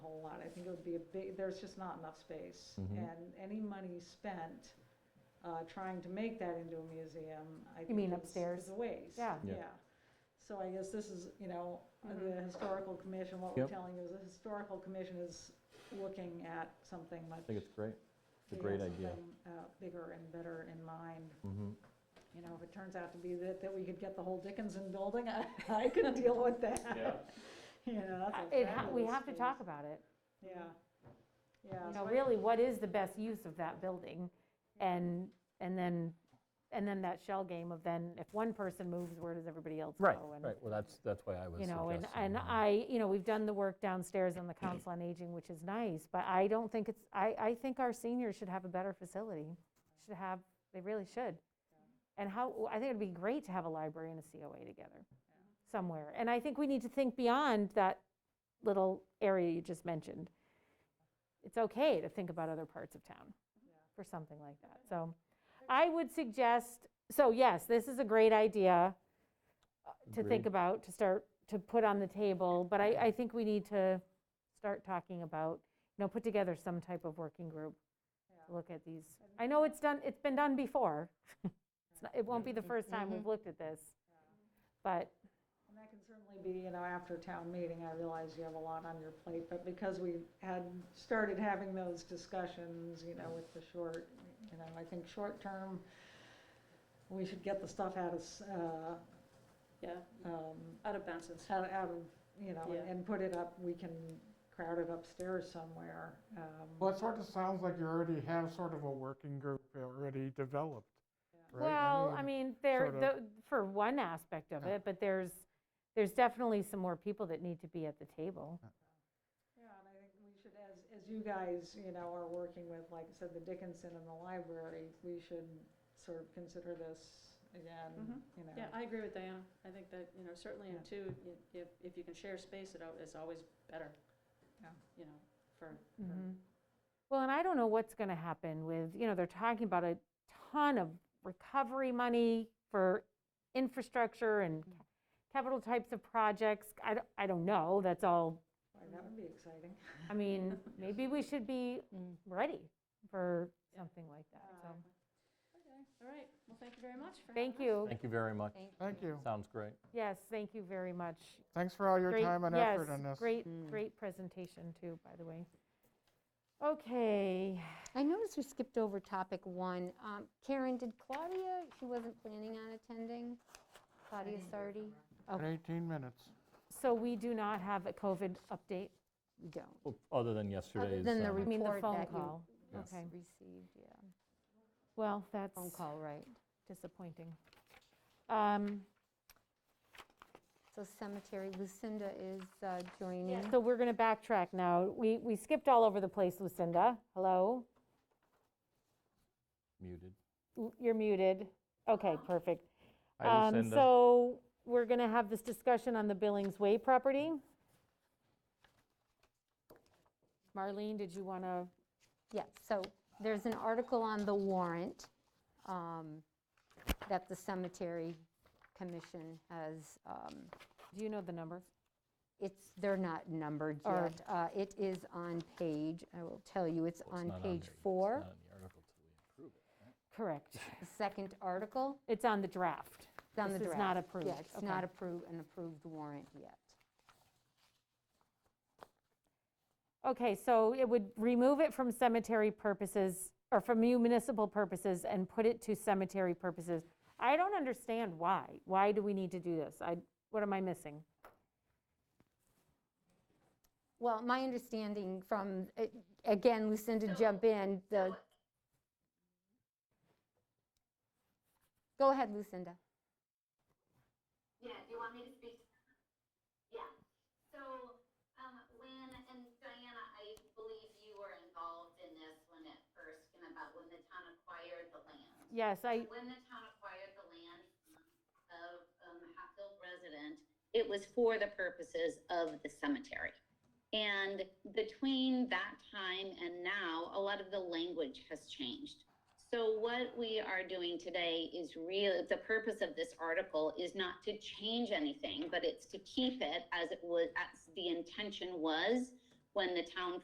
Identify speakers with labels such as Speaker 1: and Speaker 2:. Speaker 1: think it would be a big, there's just not enough space.
Speaker 2: Mhm.
Speaker 1: And any money spent uh, trying to make that into a museum, I think
Speaker 3: mean
Speaker 1: is-
Speaker 3: upstairs?
Speaker 1: Is a waste.
Speaker 3: Yeah.
Speaker 2: Yeah.
Speaker 1: Yeah. So I guess this is, you know, the
Speaker 3: Mhm.
Speaker 1: historical commission, what we're
Speaker 2: Yep.
Speaker 1: telling you is the historical commission is looking at something much.
Speaker 2: I think it's great. It's a
Speaker 1: they have
Speaker 2: great idea.
Speaker 1: something, uh, Bigger and better in mind.
Speaker 2: Mhm.
Speaker 1: You know, if it turns out to be that, that we could get the whole Dickinson building, I, I could deal with that. You know,
Speaker 3: I-
Speaker 1: that's a
Speaker 3: It, ha- we
Speaker 1: fabulous
Speaker 3: have to
Speaker 1: space.
Speaker 3: talk about it.
Speaker 1: Yeah.
Speaker 4: Mm-hmm.
Speaker 1: Yeah.
Speaker 3: You
Speaker 1: so
Speaker 3: know,
Speaker 1: I-
Speaker 3: really, what is the best use of that building? And, and then, and then that shell game of then, if one person moves, where does everybody else go?
Speaker 5: Right,
Speaker 3: And,
Speaker 5: right, well, that's, that's why I was
Speaker 3: You know, and,
Speaker 5: suggesting,
Speaker 3: and
Speaker 5: uh,
Speaker 3: I, you know, we've done the work downstairs on the Council on Aging, which is nice, but I don't think it's, I, I think our seniors should have a better facility. Should have, they really should. And how, I think it'd be great to have a library and a COA together somewhere. And I think we need to think beyond that little area you just mentioned. It's okay to think about other parts of town for something like that. So I would suggest, so yes, this is a great idea uh, to think
Speaker 2: Agreed.
Speaker 3: about, to start, to put on the table, but I, I think we need to start talking about, you know, put together some type of working group, to look at these. I know it's done, it's been done before. It's not- It won't be the first time we've looked at this, but
Speaker 1: And that can certainly be, you know, after town meeting, I realize you have a lot on your plate, but because we had started having those discussions, you know, with the short, you know, I think short term, we should get the stuff out of, s- uh,
Speaker 4: Yeah,
Speaker 1: um,
Speaker 4: out of bounds.
Speaker 1: out out of, you know,
Speaker 4: Yeah.
Speaker 1: and put it up, we can crowd it upstairs somewhere. um,
Speaker 6: Well, it sort of sounds like you already have sort of a working group already developed, right?
Speaker 3: Well, I mean, there,
Speaker 6: sort of-
Speaker 3: tho- for one aspect of
Speaker 6: Yeah.
Speaker 3: it, but there's, there's definitely some more people that need to be at the table.
Speaker 1: Yeah, and I think we should, as, as you guys, you know, are working with, like I said, the Dickinson and the library, we should sort of consider this again, you know.
Speaker 4: Yeah, I agree with Diana. I think that, you know, certainly in
Speaker 1: Yeah.
Speaker 4: two, y- if, if you can share space, it al- it's always better.
Speaker 1: Yeah.
Speaker 4: You know, for,
Speaker 3: Mhm. Well, and I don't know what's going to happen with, you know, they're talking about a ton of recovery money for infrastructure and ca- capital types of projects. I, don't- I don't know, that's all,
Speaker 1: Boy, That would be exciting.
Speaker 3: I mean, maybe we should be ready for something like that, so.
Speaker 4: okay, all right, well, thank you very much for having
Speaker 3: Thank
Speaker 4: us.
Speaker 3: you,
Speaker 2: Thank you very much.
Speaker 6: Thank you.
Speaker 2: Sounds great.
Speaker 3: yes, thank you very much.
Speaker 6: Thanks for all your
Speaker 3: Great-
Speaker 6: time and effort on
Speaker 3: Yes,
Speaker 6: this.
Speaker 7: Hmm.
Speaker 3: great, great presentation too, by the way. Okay,
Speaker 7: I noticed we skipped over topic one. Um, Karen, did Claudia, she wasn't planning on attending? Claudia Sardi?
Speaker 6: In 18 minutes.
Speaker 3: so we do not have a COVID update,
Speaker 7: We don't.
Speaker 2: Well, Oh, Other than
Speaker 7: Other
Speaker 2: yesterday's.
Speaker 7: than the
Speaker 2: um,
Speaker 3: I mean, the
Speaker 7: report
Speaker 3: phone
Speaker 7: that
Speaker 3: call.
Speaker 7: you
Speaker 2: Yes.
Speaker 3: Okay,
Speaker 7: received, yeah.
Speaker 3: well, that's
Speaker 7: Phone call, right.
Speaker 3: disappointing. Um,
Speaker 7: So cemetery, Lucinda is uh, joining.
Speaker 3: So we're going to backtrack now. We, we skipped all over the place, Lucinda. Hello?
Speaker 2: Muted.
Speaker 3: L- You're muted. Okay, perfect.
Speaker 2: Hi,
Speaker 3: Um,
Speaker 2: Lucinda.
Speaker 3: So we're going to have this discussion on the Billings Way property. Marlene, did you want to?
Speaker 7: Yeah, so there's an article on the warrant um, that the cemetery commission has um,
Speaker 3: Do you know the number?
Speaker 7: It's, they're not numbered
Speaker 3: Or-
Speaker 7: yet. Uh, It is on page, I will tell you, it's
Speaker 2: Well, it's not
Speaker 7: on page
Speaker 2: there yet. It's
Speaker 7: four,
Speaker 2: not in the article till we approve it.
Speaker 3: Correct.
Speaker 7: the second article.
Speaker 3: It's on the draft.
Speaker 7: It's on the
Speaker 3: This
Speaker 7: draft.
Speaker 3: is not approved.
Speaker 7: Yeah, it's
Speaker 3: Okay.
Speaker 7: not approved, an approved warrant yet.
Speaker 3: Okay, so it would remove it from cemetery purposes, or from municipal purposes, and put it to cemetery purposes. I don't understand why. Why do we need to do this? I, what am I missing?
Speaker 7: Well, my understanding from, uh, again, Lucinda, jump in, the... Go ahead, Lucinda.
Speaker 8: Yeah, do you want me to speak? Yeah. So, um, when, and Diana, I believe you were involved in this when it first came about, when the town acquired the land.
Speaker 3: Yes, I,
Speaker 8: When the town acquired the land of, um, Hatfield resident, it was for the purposes of the cemetery. And between that time and now, a lot of the language has changed. So what we are doing today is real, the purpose of this article is not to change anything, but it's to keep it as it was, as the intention was when the town